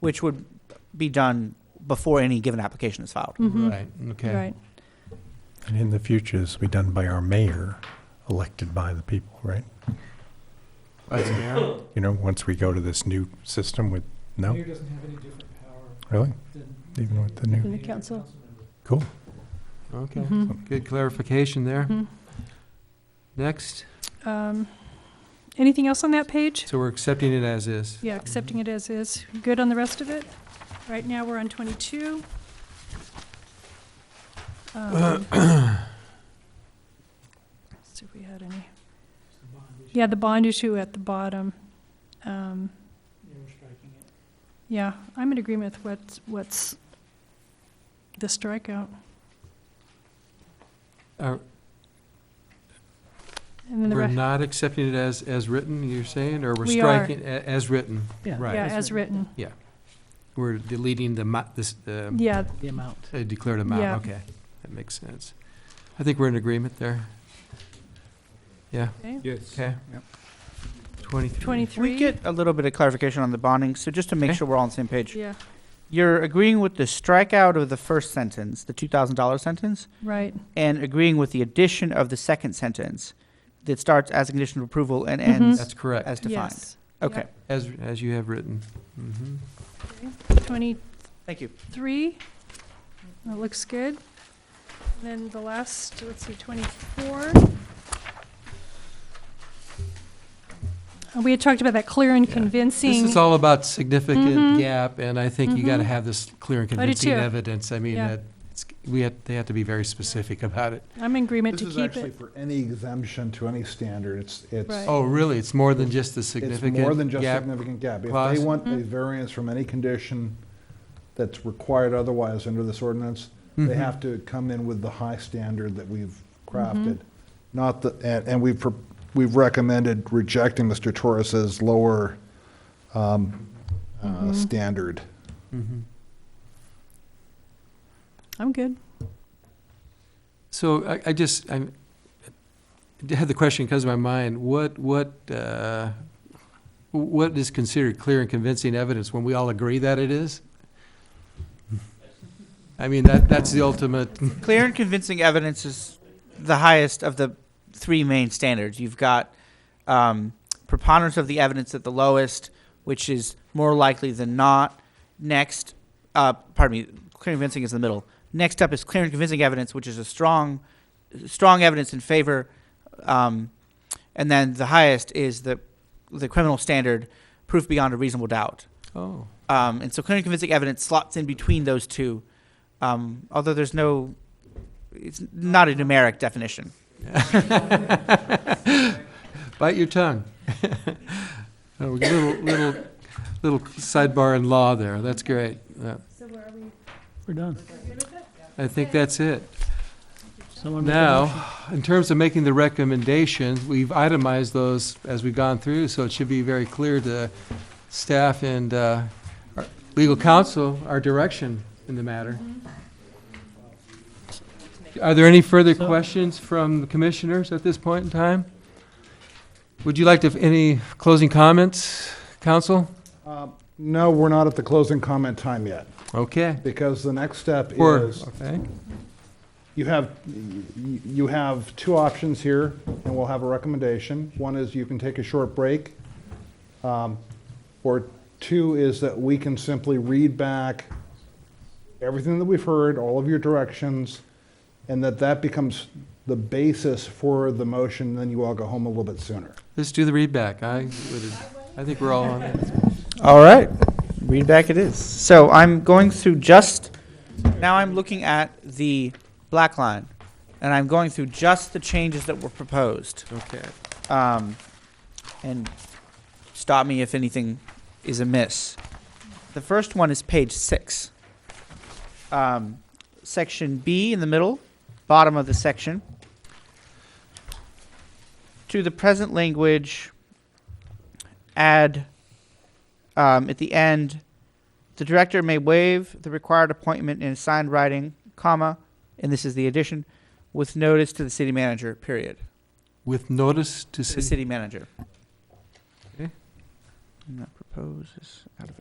which would be done before any given application is filed. Mhm. Right, okay. Right. And in the future, this will be done by our mayor, elected by the people, right? Vice Mayor? You know, once we go to this new system with, no, Mayor doesn't have any different power really? than. Even with the new- Than the mayor or council. member. Cool. Okay, Mhm. good clarification there. Mhm. Next, Um, Anything else on that page? so we're accepting it as is. Yeah, accepting it as is. Good on the rest of it? Right now, we're on 22. Um, See if we had any. It's the bond issue. Yeah, the bond issue at the bottom. Um, You were striking it. Yeah, I'm in agreement with what's, what's the strikeout. Are- And then the We're rest, not accepting it as, as written, you're saying, or we're We are. striking a- as written? Yeah. Right. yeah, as written. We're deleting the, mo- this, the Yeah, The amount. uh, declared amount, Yeah. okay. That makes sense. I think we're in agreement there. Yeah, okay. Yes. okay. Yep. Twenty-three. 23. We get a little bit of clarification on the bonding, so just to make Okay. sure we're all on the same page. Yeah, You're agreeing with the strikeout of the first sentence, the two thousand dollar sentence, right, and agreeing with the addition of the second sentence that starts as a condition of approval and Mhm. ends Mm-hmm. That's correct, as defined. yes. Okay, Yep. as, as you have written. Mhm. 23, thank you. that looks good. And Then the last, let's see, 24. Uh, We had talked about that clear and Yeah. convincing. This is all about Mhm. significant gap, and I think you gotta Mhm. have this clear and I do convincing too. evidence. I mean, Yeah. that, it's- we have, they have to be very specific about it. I'm in agreement This to is keep actually it. for any exemption to any standard. It's, it's, Right. Oh, really? It's more than just the it's significant gap? more than just significant gap. If clause. they want a Mhm. variance from any condition that's required otherwise under this ordinance, Mhm. they have to come in with the high standard that we've Mm-hmm. crafted. Not the, and, and we've, pro- we've recommended rejecting Mr. Torres's lower, Mm-hmm. um, uh, standard. Mhm. I'm good. So I, I just, I had the question comes to my mind, what, what, uh, what is considered clear and convincing evidence when we all agree that it is? I mean, that, that's the ultimate, Clear and convincing evidence is the highest of the three main standards. You've got um, preponderance of the evidence at the lowest, which is more likely than not. Next, uh, pardon me, clear and convincing is in the middle. Next up is clear and convincing evidence, which is a strong, strong evidence in favor. Um, and then the highest is the the criminal standard, proof beyond a reasonable doubt. oh, Um, and so clear and convincing evidence slots in between those two, um, although there's no, it's not a numeric definition. bite your tongue. Oh, we got a Little, little, little sidebar in law there, that's great. Yeah. So where are we? We're done. I think that's it. Someone make a motion. Now, in terms of making the recommendations, we've itemized those as we've gone through, so it should be very clear to staff and uh, our legal counsel our direction in the matter. Are there any further So- questions from the commissioners at this point in time? Would you like to, any closing comments, counsel? Um, No, we're not at the closing comment time yet, Okay. because the next step Or- is okay. You have, you you have two options here, and we'll have a recommendation. One is you can take a short break, um, or two is that we can simply read back everything that we've heard, all of your directions, and that that becomes the basis for the motion, then you all go home a little bit sooner. Let's do the read back. I, would- I think we're all on it. All right, read back it is. So I'm going through just, now I'm looking at the black line, and I'm going through just the changes that were proposed. Okay. Um, and stop me if anything is amiss. The first one is page six. Um, section B in the middle, bottom of the section. To the present language, add um, at the end, the director may waive the required appointment in signed writing, comma, and this is the addition, with notice to the city manager, period. With notice to To the city city manager. Okay. And that proposes out of